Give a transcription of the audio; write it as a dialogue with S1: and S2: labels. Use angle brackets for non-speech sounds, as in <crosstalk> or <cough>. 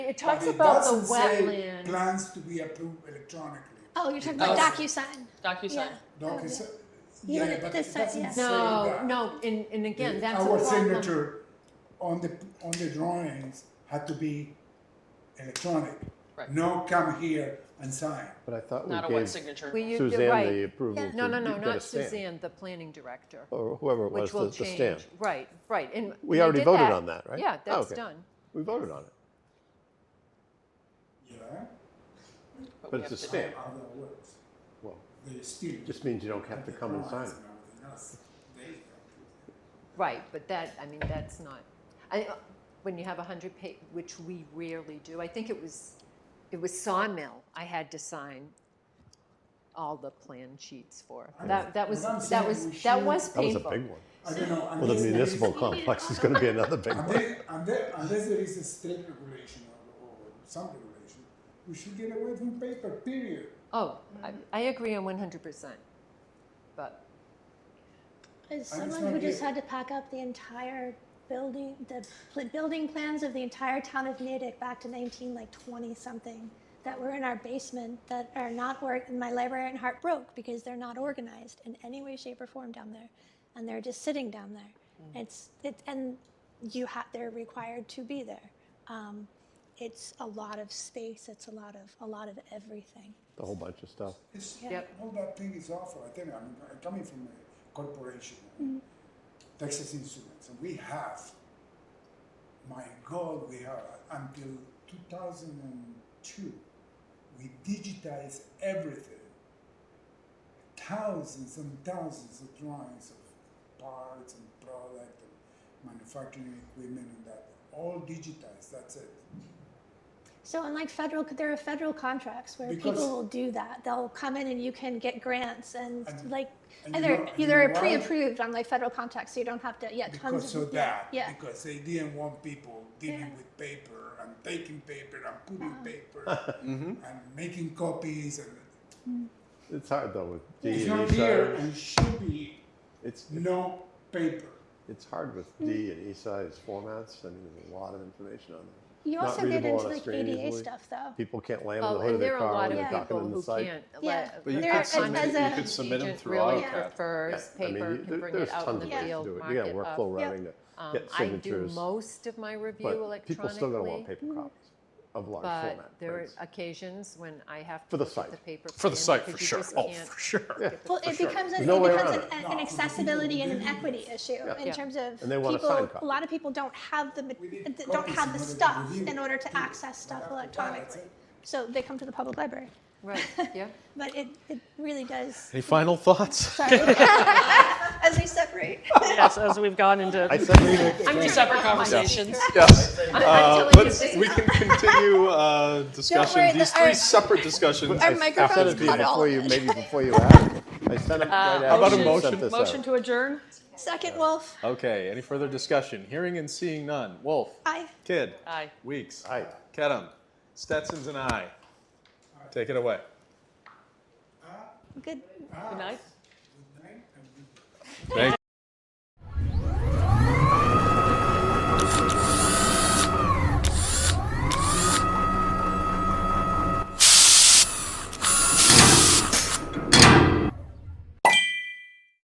S1: It
S2: but
S1: talks
S2: it
S1: about the
S2: doesn't say
S1: wetland.
S2: Plans to be approved electronically.
S3: Oh, you're talking about
S4: Oh.
S3: DocuSign.
S4: DocuSign.
S3: Yeah.
S2: Doc is,
S3: You
S2: yeah,
S3: wanna
S2: but it
S3: decide-
S2: doesn't
S3: yeah.
S2: say
S1: No,
S2: that.
S1: no, and, and again, that's a
S2: Our
S1: problem.
S2: signature on the, on the drawings had to be electronic.
S4: Right.
S2: No come here and sign.
S5: But I thought
S4: Not a
S5: we
S4: wet
S5: gave
S4: signature.
S1: Well, you- you're
S5: Suzanne
S1: right.
S5: the approval to
S1: No, no, no,
S5: get a
S1: not
S5: stamp.
S1: Suzanne, the planning director,
S5: Or whoever it was,
S1: which
S5: Oh, the
S1: will
S5: the stamp.
S1: change. Right, right, and.
S5: We
S1: they
S5: already
S1: did
S5: voted
S1: that.
S5: on that, right?
S1: Yeah,
S5: Oh,
S1: that's
S5: okay.
S1: done.
S5: We voted on it,
S2: Yeah,
S4: we
S5: but it's a
S4: have to-
S5: stamp.
S2: how that works.
S5: Well,
S2: They still.
S5: just means you don't have to come and sign it.
S1: Right, but that, I mean, that's not, I, when you have a hundred page, which we rarely do, I think it was, it was Sawmill I had to sign all the plan sheets for.
S2: I know.
S1: That, that was,
S2: What I'm
S1: that
S2: saying, we
S1: was, that
S2: should-
S1: was
S5: That was a
S1: painful.
S5: big one.
S2: I don't know.
S5: Well, the
S2: unless there is-
S5: municipal complex is going to be another big one.
S2: Unless, unless, unless there is a state regulation or, or some regulation, we should get away from paper, period.
S1: Oh, I, I agree on one hundred percent, but,
S3: As
S2: I
S3: someone
S2: understand
S3: who
S2: you.
S3: just had to pack up the entire building, the pl- building plans of the entire town of Natick back to nineteen like twenty something that were in our basement that are not work. And my librarian heart broke because they're not organized in any way, shape, or form down there, and they're just sitting down there. It's it and you have they're required to be there. Um, it's a lot of space. It's a lot of a lot of everything.
S5: A whole bunch of stuff.
S2: It's,
S1: Yep.
S2: all that thing is awful, I tell you, I'm, I'm coming from a corporation, Texas Instruments, and we have, my God, we have, until two thousand and two, we digitized everything. Thousands and thousands of drawings of parts and product and manufacturing equipment and that, all digitized, that's it.
S3: So unlike federal, there are federal contracts where
S2: Because-
S3: people will do that. They'll come in and you can get grants and,
S2: And-
S3: like
S2: and you
S3: either
S2: know- and you
S3: either
S2: know why?
S3: pre-approved on like federal contracts, so you don't have to yeah tons
S2: because
S3: of
S2: of that
S3: yeah.
S2: because they didn't want people dealing
S3: Yeah. Uh-huh.
S2: with paper and taking paper and putting paper and making copies and
S5: It's hard though with D
S2: it's
S5: and
S2: not
S5: E
S2: here
S5: size.
S2: and should be
S5: It's,
S2: no paper
S5: it's hard with D and E size formats. I mean, there's a lot of information on there.
S3: You
S5: Not
S3: also get
S5: readable
S3: into
S5: on a
S3: like
S5: screen
S3: ADA
S5: easily.
S3: stuff though.
S5: People can't land on
S1: oh,
S5: the hood of
S1: and there are
S5: their
S1: a
S5: car
S1: lot
S5: when
S1: of
S5: they're
S1: people
S5: talking on the
S1: who
S5: site.
S1: can't.
S3: Yeah.
S1: let-
S3: But
S6: But you
S3: There
S1: let-
S3: are-
S6: could submit,
S3: as
S6: you
S3: a-
S6: could submit them
S1: Agent
S6: through
S1: really
S6: AutoCAD.
S1: prefers
S5: I mean,
S1: paper,
S5: you-
S1: can
S5: there-
S1: bring it
S5: there's
S1: out in
S5: tons
S1: the
S5: of ways to
S1: field,
S5: do it.
S1: mark
S5: You got
S1: it
S5: workflow
S1: up.
S5: routing to
S1: Um, I
S5: get
S1: do
S5: signatures.
S1: most of my review
S5: But
S1: electronically.
S5: people still gonna want paper copies of large
S1: But
S5: format
S1: there are
S5: prints.
S1: occasions when I have to.
S5: For the
S1: look at
S5: site.
S1: The paper.
S6: For
S1: plan
S6: the site, for
S1: because you
S6: sure.
S1: just
S6: Oh,
S1: can't-
S6: for sure.
S3: Well, it becomes an,
S5: No
S3: it
S5: way
S3: becomes
S5: around
S3: an, an
S2: No, Mm-hmm.
S3: accessibility and an
S2: because
S3: equity issue in
S1: Yeah.
S3: terms of
S5: And they want a
S3: people.
S5: signed copy.
S3: A lot of people don't have the ma-
S2: We need
S3: th- don't
S2: copies
S3: have
S2: in
S3: the
S2: order to
S3: stuff
S2: review
S3: in
S2: it.
S3: order to
S2: Yeah.
S3: access stuff
S2: But after that, that's
S3: electronically, so they come to the public library.
S1: Right,
S6: <laughs>
S1: yeah.
S3: But it, it really
S2: <laughs>
S3: does.
S6: Any
S1: <laughs>
S6: final thoughts?
S3: Sorry, <laughs> as we separate.
S7: Yes, as we've gone into
S5: I said,
S4: Two separate conversations.
S6: Yes.
S1: <laughs> I'm
S6: Uh,
S1: telling you,
S6: let's,
S1: this is-
S6: we
S1: <laughs>
S6: can continue uh,
S3: worry,
S6: discussion, these
S3: the-
S6: three
S3: our-
S6: separate
S1: <laughs>
S6: discussions.
S3: Our
S5: I said it
S3: microphone's
S5: to you
S3: cut all
S5: before
S3: of
S5: you,
S3: it.
S5: maybe before you asked. I sent it right
S6: How about
S5: after
S6: a
S5: you sent
S6: motion?
S5: this
S7: motion
S5: out.
S7: to adjourn.
S3: Second Wolf,
S6: Okay, any further discussion? Hearing and seeing none. Wolf.
S3: I.
S6: Kid.
S7: Aye.
S6: Weeks.
S5: Aye.
S6: Kedem. Stetson's an aye. Take it away.
S3: Good.
S7: Good night.
S2: right? And we-
S6: Thank